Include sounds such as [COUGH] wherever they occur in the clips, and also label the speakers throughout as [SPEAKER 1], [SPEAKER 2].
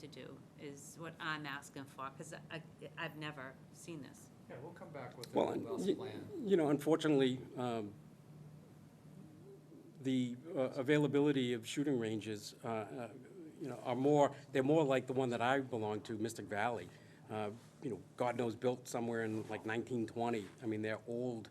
[SPEAKER 1] to do, is what I'm asking for, because I, I've never seen this.
[SPEAKER 2] Yeah, we'll come back with a
[SPEAKER 3] Well, and
[SPEAKER 2] robust
[SPEAKER 3] y-
[SPEAKER 2] plan.
[SPEAKER 3] you know, unfortunately, um, the uh, availability of shooting ranges, uh, uh, you know, are more, they're more like the one that I belong to, Mystic Valley. Uh, You know, God knows, built somewhere in like 1920. I mean, they're old.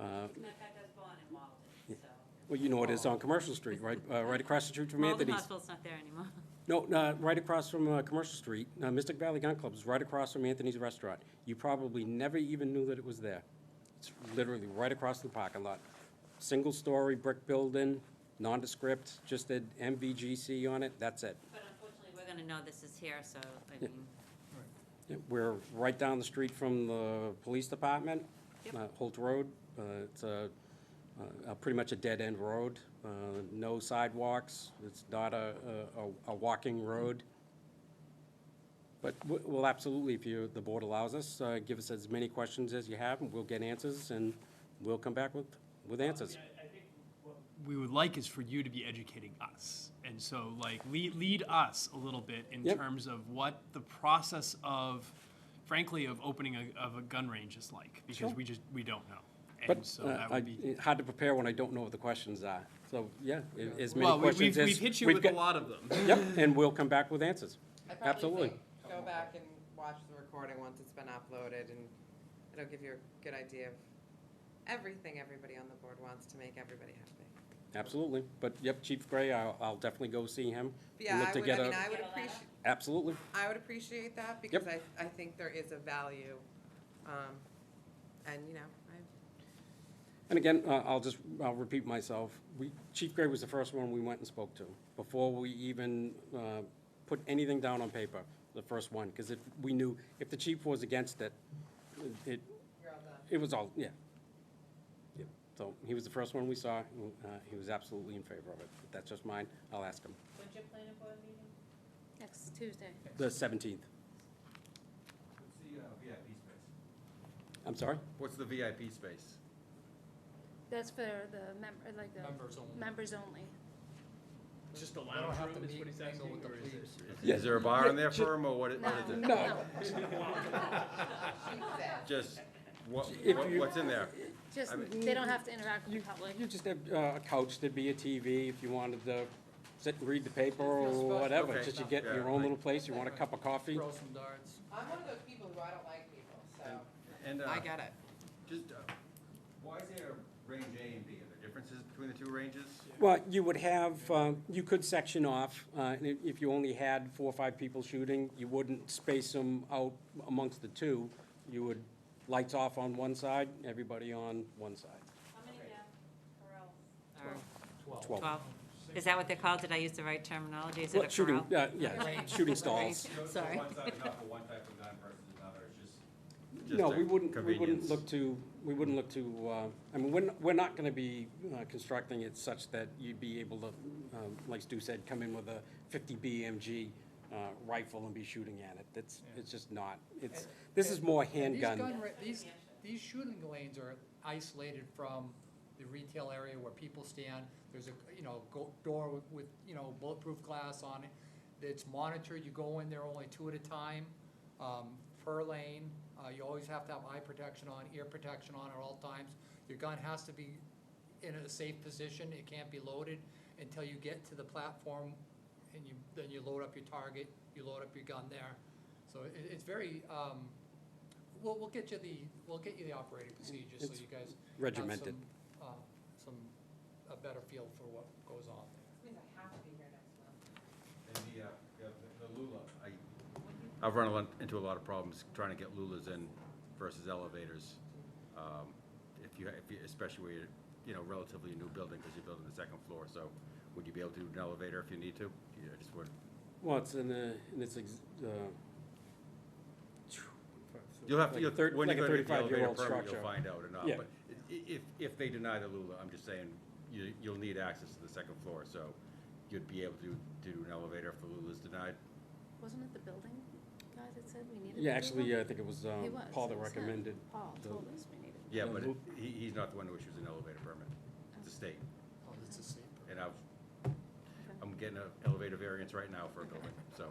[SPEAKER 3] uh,
[SPEAKER 1] My dad does Vaughn and Walden, so.
[SPEAKER 3] Well, you know it is on Commercial Street, right, uh, right across the street from
[SPEAKER 1] Walden
[SPEAKER 3] Anthony's.
[SPEAKER 1] Hospital's not there anymore. [LAUGHS]
[SPEAKER 3] No, no, right across from uh, Commercial Street, uh, Mystic Valley Gun Club is right across from Anthony's Restaurant. You probably never even knew that it was there. It's literally right across the parking lot. Single-story brick building, nondescript, just did MVGC on it, that's it.
[SPEAKER 1] But unfortunately, we're gonna know this is here, so, I mean,
[SPEAKER 3] Yeah, We're right down the street from the police department,
[SPEAKER 1] Yep.
[SPEAKER 3] uh, Holt Road. Uh, It's a, uh, a- pretty much a dead-end road, Uh, no sidewalks, it's not a, a- a, a walking road. But we- we'll absolutely, if you, the board allows us, uh, give us as many questions as you have, and we'll get answers, and we'll come back with, with answers.
[SPEAKER 4] I I think what We would like is for you to be educating us. And so like lead, lead us a little bit in
[SPEAKER 3] Yep.
[SPEAKER 4] terms of what the process of, frankly, of opening a, of a gun range is like. Because we just, we don't know.
[SPEAKER 3] But
[SPEAKER 4] And so
[SPEAKER 3] uh,
[SPEAKER 4] that
[SPEAKER 3] I-
[SPEAKER 4] would be.
[SPEAKER 3] it's hard to prepare when I don't know what the questions are. So, yeah, i- as many
[SPEAKER 4] Well, we-
[SPEAKER 3] questions
[SPEAKER 4] we've,
[SPEAKER 3] as.
[SPEAKER 4] we've hit you
[SPEAKER 3] we've
[SPEAKER 4] with a
[SPEAKER 3] got-
[SPEAKER 4] lot of them.
[SPEAKER 3] Yep, and we'll come back with answers.
[SPEAKER 5] I probably
[SPEAKER 3] Absolutely.
[SPEAKER 5] think Go back and watch the recording once it's been uploaded, and it'll give you a good idea of everything everybody on the board wants to make everybody happy.
[SPEAKER 3] Absolutely, but yep, Chief Gray, I'll, I'll definitely go see him.
[SPEAKER 5] But Yeah,
[SPEAKER 3] Look
[SPEAKER 5] I
[SPEAKER 3] to
[SPEAKER 5] would,
[SPEAKER 3] get
[SPEAKER 5] I
[SPEAKER 3] a-
[SPEAKER 5] mean, I
[SPEAKER 1] Get
[SPEAKER 5] would
[SPEAKER 1] a letter.
[SPEAKER 5] appreciate,
[SPEAKER 3] Absolutely,
[SPEAKER 5] I would appreciate that, because I, I think there is a value, um, and, you know, I,
[SPEAKER 3] and again, uh, I'll just, I'll repeat myself, we, Chief Gray was the first one we went and spoke to, before we even, uh, put anything down on paper, the first one, because if, we knew, if the chief was against it, it,
[SPEAKER 5] you're all done.
[SPEAKER 3] it was all, yeah. Yep. So, he was the first one we saw, and, uh, he was absolutely in favor of it, But that's just mine, I'll ask him,
[SPEAKER 5] When's your planning board meeting?
[SPEAKER 1] next Tuesday.
[SPEAKER 3] the seventeenth,
[SPEAKER 6] What's the uh, VIP space?
[SPEAKER 3] I'm sorry?
[SPEAKER 6] What's the VIP space?
[SPEAKER 7] That's for the member, like the.
[SPEAKER 2] Members only.
[SPEAKER 7] Members only.
[SPEAKER 4] [LAUGHS] Just a
[SPEAKER 2] I don't
[SPEAKER 4] lounge
[SPEAKER 2] have to
[SPEAKER 4] room is
[SPEAKER 2] meet,
[SPEAKER 4] what he's
[SPEAKER 2] mingle
[SPEAKER 4] asking,
[SPEAKER 2] with the
[SPEAKER 4] or is it?
[SPEAKER 2] police.
[SPEAKER 6] Is there a bar in there for him, or what, what is it?
[SPEAKER 7] No, no,
[SPEAKER 6] Just, what,
[SPEAKER 3] If
[SPEAKER 6] what-
[SPEAKER 3] you-
[SPEAKER 6] what's in there?
[SPEAKER 7] just,
[SPEAKER 6] I
[SPEAKER 7] they don't have to interact
[SPEAKER 3] You,
[SPEAKER 7] with the public.
[SPEAKER 3] you just have uh, a couch, there'd be a TV if you wanted to sit and read the paper or
[SPEAKER 5] special.
[SPEAKER 3] whatever.
[SPEAKER 6] Okay.
[SPEAKER 3] Just you get
[SPEAKER 6] Yeah,
[SPEAKER 3] your own
[SPEAKER 6] I-
[SPEAKER 3] little place, you want a cup of coffee.
[SPEAKER 2] Throw some darts.
[SPEAKER 5] [LAUGHS] I'm one of those people who I don't like people, so.
[SPEAKER 6] And, uh,
[SPEAKER 5] I get it.
[SPEAKER 6] just, uh, why is there range A and B? Are there differences between the two ranges?
[SPEAKER 3] Well, you would have, um, you could section off, uh, and if- if you only had four or five people shooting, you wouldn't space them out amongst the two. You would, lights off on one side, everybody on one side.
[SPEAKER 1] How many uh,
[SPEAKER 3] Twelve.
[SPEAKER 1] Twelve. Is that what they're called? Did I use the right terminology? Is it a
[SPEAKER 3] Well,
[SPEAKER 1] corral?
[SPEAKER 3] shooting, uh, yeah, shooting stalls.
[SPEAKER 1] [LAUGHS] Sorry.
[SPEAKER 6] One side enough for one type of gun versus another, it's just.
[SPEAKER 3] No, we wouldn't, we wouldn't look to, we wouldn't look to, uh, I mean, we're, n- we're not gonna be uh, constructing it such that you'd be able to, um, like Stu said, come in with a fifty BMG uh, rifle and be shooting at it. That's, it's just not, it's, this is more
[SPEAKER 2] And these
[SPEAKER 3] handgun.
[SPEAKER 2] gun ra- These, these shooting lanes are isolated from the retail area where people stand. There's a, you know, go, door with- with, you know, bulletproof glass on it. It's monitored, you go in there only two at a time, um, per lane. Uh, you always have to have eye protection on, ear protection on at all times. Your gun has to be in a safe position, it can't be loaded until you get to the platform and you, then you load up your target, you load up your gun there. So it, it's very, um, We'll, we'll get you the, we'll get you the operating procedures, so
[SPEAKER 3] It's
[SPEAKER 2] you guys.
[SPEAKER 3] regimented.
[SPEAKER 2] Have some, uh, some, a better feel for what goes on there.
[SPEAKER 5] Means I have to be here next month.
[SPEAKER 6] And the, uh, yeah, the- the Lula, I, I've run a lot- into a lot of problems trying to get Lulas in versus elevators. Um, If you, if you, especially where you're, you know, relatively a new building, because you're building the second floor, so would you be able to do an elevator if you need to? Yeah, I just would,
[SPEAKER 3] Well, it's in a, in its, ex- uh.
[SPEAKER 6] you'll have to,
[SPEAKER 3] like a
[SPEAKER 6] you'll-
[SPEAKER 3] third-
[SPEAKER 6] when you
[SPEAKER 3] like a
[SPEAKER 6] go to get the elevator
[SPEAKER 3] 35-year-old
[SPEAKER 6] permit,
[SPEAKER 3] structure.
[SPEAKER 6] you'll find out or not.
[SPEAKER 3] Yeah.
[SPEAKER 6] But i- i- if, if they deny the Lula, I'm just saying, you, you'll need access to the second floor, so you'd be able to do an elevator if the Lula's denied.
[SPEAKER 7] Wasn't it the building guy that said we needed?
[SPEAKER 3] Yeah,
[SPEAKER 7] the building?
[SPEAKER 3] actually, I think it was,
[SPEAKER 7] He
[SPEAKER 3] um,
[SPEAKER 7] was,
[SPEAKER 3] Paul
[SPEAKER 7] it
[SPEAKER 3] that
[SPEAKER 7] was him.
[SPEAKER 3] recommended.
[SPEAKER 7] Paul
[SPEAKER 3] the-
[SPEAKER 7] told us we needed.
[SPEAKER 6] Yeah, but it-
[SPEAKER 3] Lu-
[SPEAKER 6] he, he's not the one who issues an elevator permit, it's the state.
[SPEAKER 2] Oh, that's a safe.
[SPEAKER 6] And I've, I'm getting an elevator variance right now for a building, so.